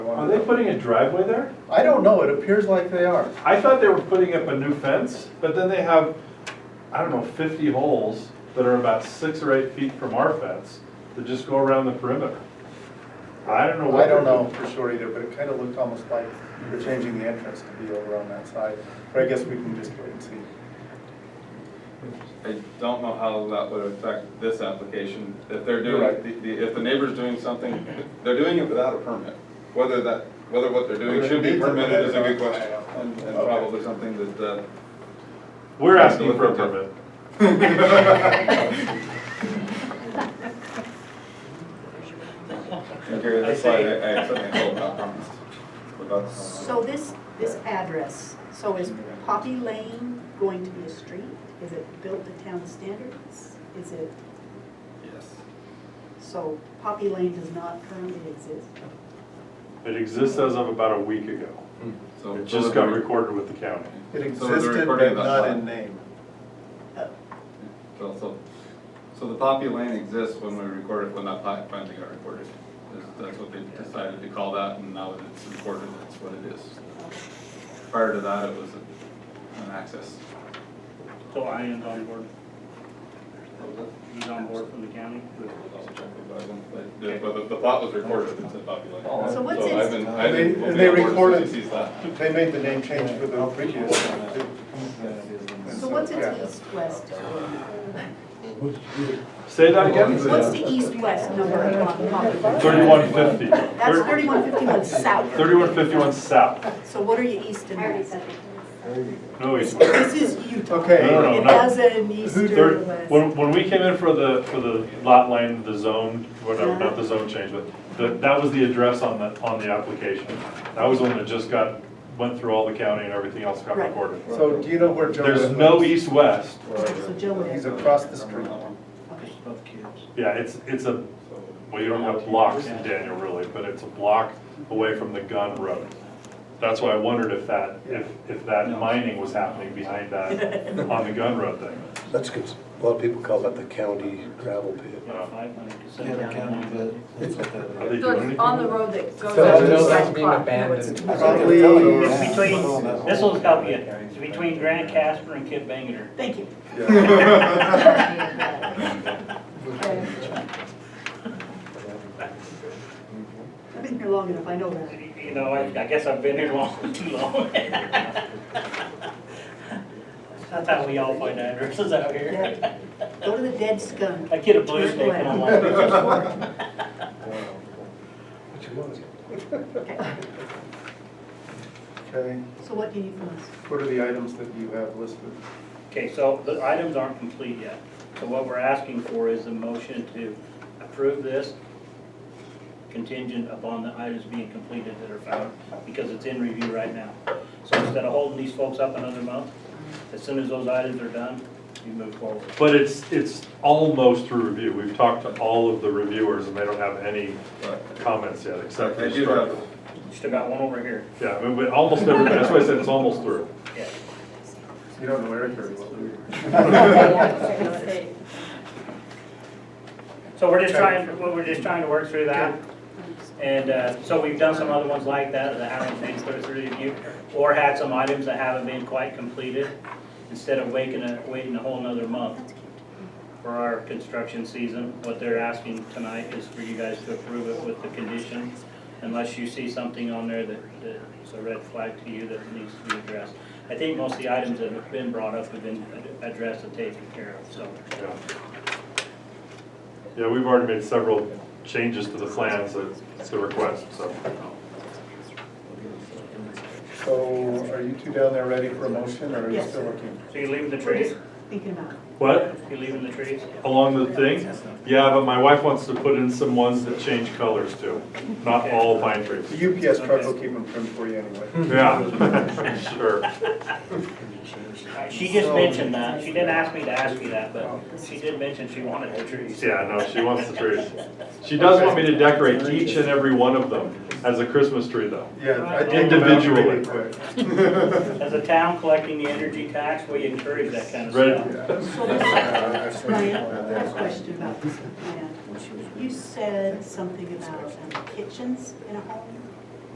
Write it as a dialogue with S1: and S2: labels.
S1: wanna
S2: Are
S1: know.
S2: they putting a driveway there?
S1: I don't know, it appears like they are.
S2: I thought they were putting up a new fence, but then they have, I don't know, fifty holes that are about six or eight feet from our fence that just go around the perimeter. I don't know what.
S1: I don't
S2: they're
S1: know
S2: doing.
S1: for sure either, but it kind of looked almost like they're changing the entrance to be over on that side. But I guess we can just wait and see.
S3: I don't know how that would affect this application. If
S1: You're
S3: they're doing,
S1: right.
S3: the- the- if the neighbor's doing something, they're doing it without a permit. Whether that, whether what they're doing
S1: Whether
S3: should
S1: it
S3: be
S1: needs a
S3: permitted is a
S1: permit
S3: good
S1: or not.
S3: question. And and
S1: Okay.
S3: probably something that, uh,
S2: We're asking for a permit.
S3: and Gary, that's
S4: I
S3: why I,
S4: see.
S3: I accept my not promised. But that's-
S5: So this, this address, so is Poppy Lane going to be a street? Is it built to town standards? Is it,
S3: Yes.
S5: so Poppy Lane does not currently exist?
S2: It exists as of about a week ago.
S3: So-
S2: It just got recorded with the county.
S1: It
S3: So they're
S1: existed, but
S3: recording that
S1: not
S3: lot.
S1: in name.
S5: Oh,
S3: So, so- so the Poppy Lane exists when we recorded, when that plat finally got recorded. That's- That's what they decided to call that, and now that it's recorded, that's what it is. Prior to that, it was an access.
S4: So Ian's on board, he's on board from the county.
S3: But the- but the, the plot was recorded, it's in Poppy Lane.
S5: So what's
S3: I've been, I've
S1: They-
S3: been. hoping
S1: they
S3: the board
S1: recorded-
S3: sees that.
S1: They made the name change for the previous one too.
S5: So what's
S1: Yeah.
S5: its east-west number?
S2: Say that again?
S5: What's the east-west number on Poppy? Lane?
S2: Thirty-one fifty.
S5: That's thirty-one fifty-one south.
S2: Thirty-one fifty-one south.
S5: So what are you east and
S6: I already
S5: west?
S6: said it.
S2: No,
S5: This
S2: it's,
S5: this is Utah.
S1: Okay.
S2: No, no,
S5: It
S2: no.
S5: has an east or
S2: Thir-
S5: a west.
S2: When, when we came in for the, for the lot line, the zone, whatever, not the zone change, but the- that was the address on the, on the application. That was one that just got, went through all the county and everything else got
S5: Right.
S2: recorded.
S1: So do you know where Joe
S2: There's
S1: Whitman
S2: no
S1: lives?
S2: east-west,
S5: Okay, so Joe
S1: He's
S5: there.
S1: across the street.
S5: Okay.
S2: yeah, it's, it's a, well, you don't have blocks in Daniel really, but it's a block away from the gun road. That's why I wondered if that, if, if that mining was happening behind that, on the gun road thing.
S7: That's good. A lot of people call that the county gravel pit.
S2: you know.
S4: Five hundred percent.
S8: Yeah, the county, but it's what
S2: Are
S8: the.
S2: they doing anything?
S6: on the road that goes
S8: So
S6: up to
S8: those
S6: West
S8: are
S7: being
S6: Park. No,
S7: abandoned.
S6: it's-
S1: Probably-
S4: It's between, this one's got me, it's between Grand Casper and Kid Bangor.
S5: Thank you. I've been here long enough, I know that.
S4: You know, I, I guess I've been here long, too long. That's how we all find addresses out here.
S5: Yeah. Go to the dead skunk.
S4: I get a blue snake and I'm like,
S5: Okay.
S7: What you want?
S1: Okay,
S5: So what do you need from us?
S1: what are the items that you have listed?
S4: okay, so the items aren't complete yet. So what we're asking for is a motion to approve this contingent upon the items being completed that are found, because it's in review right now. So instead of holding these folks up another month, as soon as those items are done, we move forward.
S2: But it's, it's almost through review. We've talked to all of the reviewers and they don't have any
S3: But
S2: comments yet, except for.
S3: I do have,
S4: Still got one over here.
S2: Yeah, I mean, but almost everybody, that's why I said it's almost through.
S4: Yeah.
S1: You don't know Eric very well, do you?
S4: So we're just trying, well, we're just trying to work through that. And uh, so we've done some other ones like that, that haven't been put through review, or had some items that haven't been quite completed, instead of waking, a- waiting a whole nother month for our construction season. What they're asking tonight is for you guys to approve it with the condition, unless you see something on there that, that is a red flag to you that needs to be addressed. I think most of the items that have been brought up have been ad- addressed and taken care of, so.
S2: Yeah. Yeah, we've already made several changes to the plans at the request, so.
S1: So are you two down there ready for a motion, or are you
S5: Yes.
S1: still looking?
S4: So you leaving the
S5: We're
S4: trees?
S5: just thinking about it.
S2: What,
S4: You leaving the trees?
S2: along the thing? Yeah, but my wife wants to put in some ones that change colors too, not all pine trees.
S1: The UPS truck will keep them trimmed for you anyway.
S2: Yeah, sure.
S4: She just mentioned that, she didn't ask me to ask you that, but she did mention she wanted the trees.
S2: Yeah, no, she wants the trees. She does want me to decorate each and every one of them as a Christmas tree, though.
S1: Yeah, I did them out really
S2: Individually.
S1: quick.
S4: As a town collecting the energy tax, we encourage that kind of
S2: Right.
S4: stuff.
S1: Uh,
S5: So this, Ryan, I have a question about this plan. You said something about um, kitchens in a home.